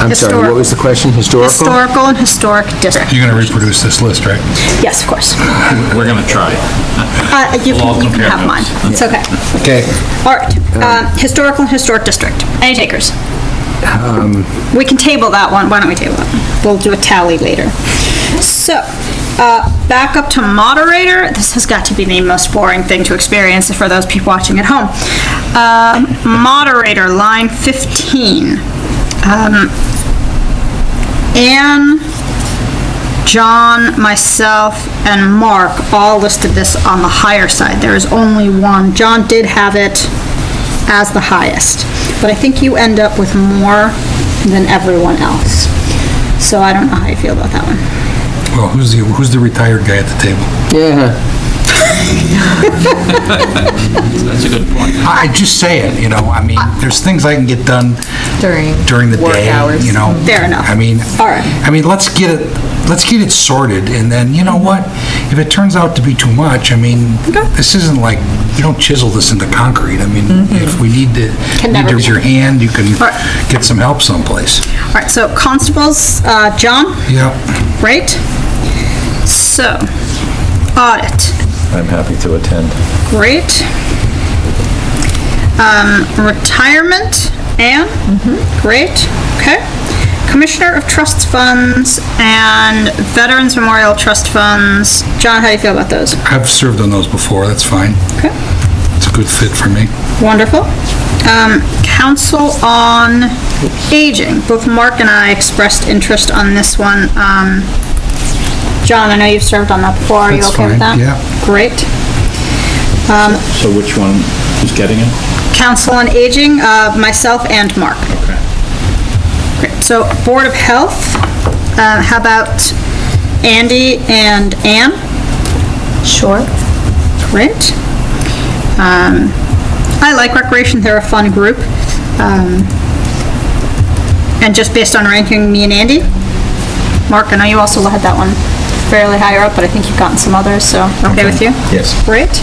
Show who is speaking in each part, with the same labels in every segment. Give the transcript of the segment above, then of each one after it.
Speaker 1: I'm sorry, what was the question? Historical?
Speaker 2: Historical and Historic District.
Speaker 3: You're going to reproduce this list, right?
Speaker 2: Yes, of course.
Speaker 4: We're going to try.
Speaker 2: Uh, You
Speaker 4: We'll all
Speaker 2: can you can
Speaker 4: compare
Speaker 2: have mine.
Speaker 4: notes.
Speaker 2: It's okay.
Speaker 1: Okay.
Speaker 2: All right, uh, Historical and Historic District. Any takers? We can table that one, why don't we table it? We'll do a tally later. So, uh, back up to moderator, this has got to be the most boring thing to experience for those people watching at home. Um, Moderator, line 15. Um, Anne, John, myself, and Mark all listed this on the higher side. There is only one. John did have it as the highest, but I think you end up with more than everyone else. So I don't know how you feel about that one.
Speaker 3: Well, who's the, who's the retired guy at the table?
Speaker 1: Yeah,
Speaker 4: That's a good point.
Speaker 3: I I just say it, you know, I mean, there's things I can get done
Speaker 5: During
Speaker 3: during the
Speaker 5: work
Speaker 3: day,
Speaker 5: hours.
Speaker 3: you know?
Speaker 2: Fair enough.
Speaker 3: I mean,
Speaker 2: All right.
Speaker 3: I mean, let's get it, let's get it sorted, and then, you know
Speaker 2: Mm-hmm.
Speaker 3: what? If it turns out to be too much, I mean, this isn't like, you don't chisel this into concrete. I mean, if we need to,
Speaker 2: Mm-hmm. Can
Speaker 3: need
Speaker 2: never
Speaker 3: to raise your hand, you can
Speaker 2: Right.
Speaker 3: get some help someplace.
Speaker 2: All right, so constables, uh, John,
Speaker 3: Yeah.
Speaker 2: right? So, audit.
Speaker 6: I'm happy to attend.
Speaker 2: Great. Um, retirement, Anne? Great, okay. Commissioner of Trust Funds and Veterans Memorial Trust Funds. John, how do you feel about those?
Speaker 3: I've served on those before, that's fine.
Speaker 2: Okay,
Speaker 3: It's a good fit for me.
Speaker 2: wonderful. Um, Council on Aging, both Mark and I expressed interest on this one. Um, John, I know you've served on that before, are you
Speaker 3: That's
Speaker 2: okay with that?
Speaker 3: fine, yeah.
Speaker 2: Great.
Speaker 4: So which one is getting it?
Speaker 2: Council on Aging, uh, myself and Mark.
Speaker 4: Okay.
Speaker 2: Great. So Board of Health, uh, how about Andy and Ann?
Speaker 5: Sure.
Speaker 2: Great. Um, I like Recreation, they're a fun group. Um, And just based on ranking me and Andy, Mark, I know you also had that one fairly higher up, but I think you've gotten some others, so okay with you?
Speaker 6: Yes.
Speaker 2: Great.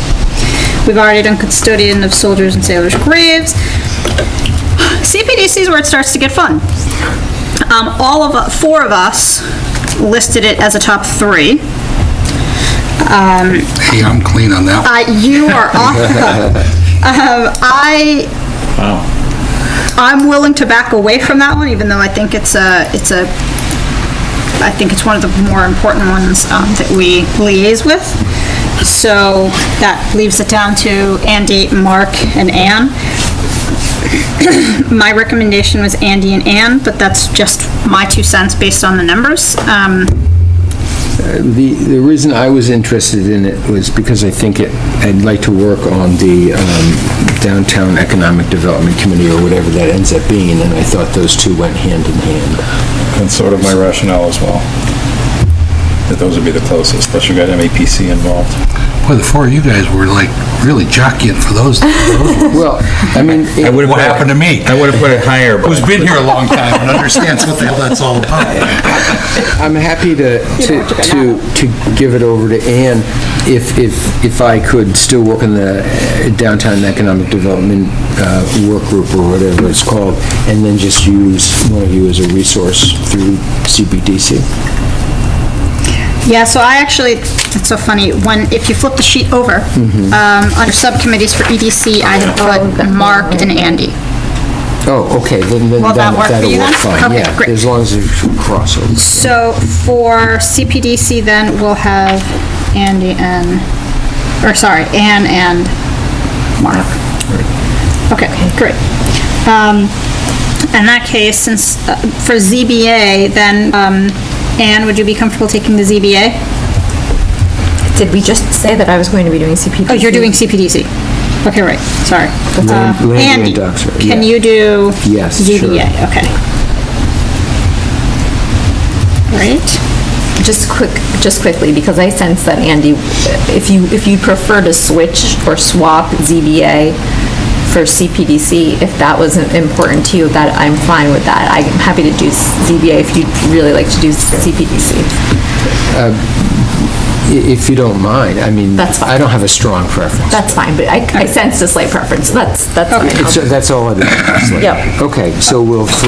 Speaker 2: We've already done custodian of soldiers and sailors' graves. CPDC is where it starts to get fun. Um, all of, four of us listed it as a top three.
Speaker 3: Hey, I'm clean on that one.
Speaker 2: Uh, you are off the hook. Um, I,
Speaker 4: Wow.
Speaker 2: I'm willing to back away from that one, even though I think it's a, it's a, I think it's one of the more important ones, um, that we liaise with. So that leaves it down to Andy, Mark, and Anne. My recommendation was Andy and Anne, but that's just my two cents based on the numbers. Um,
Speaker 1: the, the reason I was interested in it was because I think it, I'd like to work on the um, Downtown Economic Development Committee, or whatever that ends up being, and I thought those two went hand in hand.
Speaker 6: That's sort of my rationale as well. That those would be the closest, unless you got MAPC involved.
Speaker 3: Boy, the four of you guys were like really jockeying for those.
Speaker 1: Well, I mean...
Speaker 3: I would've- What happened to me?
Speaker 6: I would have put it higher, but
Speaker 3: Who's been here a long time and understands what the hell that's all about.
Speaker 1: I'm happy to, to, to to give it over to Ann if, if, if I could still work in the uh, Downtown Economic Development uh, Work Group or whatever it's called, and then just use one of you as a resource through CBDC.
Speaker 2: Yeah, so I actually, it's so funny, when, if you flip the sheet over, um, under subcommittees for EDC, I had put Mark and Andy.
Speaker 1: Oh, okay, then, then
Speaker 2: Will that
Speaker 1: that'll
Speaker 2: work for
Speaker 1: that'll
Speaker 2: you
Speaker 1: work
Speaker 2: then?
Speaker 1: fine,
Speaker 2: Okay,
Speaker 1: yeah,
Speaker 2: great.
Speaker 1: as long as there's crossover.
Speaker 2: So for CPDC then, we'll have Andy and, or sorry, Ann and Mark. Okay, great. Um, in that case, since, uh, for ZBA, then, um, Ann, would you be comfortable taking the ZBA?
Speaker 5: Did we just say that I was going to be doing CPD?
Speaker 2: Oh, you're doing CPDC. Okay, right, sorry.
Speaker 1: Land-
Speaker 2: Uh,
Speaker 1: land
Speaker 2: Andy,
Speaker 1: grant docs, right,
Speaker 2: can
Speaker 1: yeah.
Speaker 2: you do?
Speaker 1: Yes, sure.
Speaker 2: ZBA, okay. Great,
Speaker 5: Just quick, just quickly, because I sense that Andy, if you, if you prefer to switch or swap ZBA for CPDC, if that wasn't important to you, that I'm fine with that. I'm happy to do ZBA if you'd really like to do CPDC.
Speaker 1: I- If you don't mind, I mean,
Speaker 5: That's fine.
Speaker 1: I don't have a strong preference.
Speaker 5: That's fine, but I, I sensed a slight preference. That's, that's fine.
Speaker 1: It's- That's all it is.
Speaker 5: Yep.
Speaker 1: Okay, so we'll flip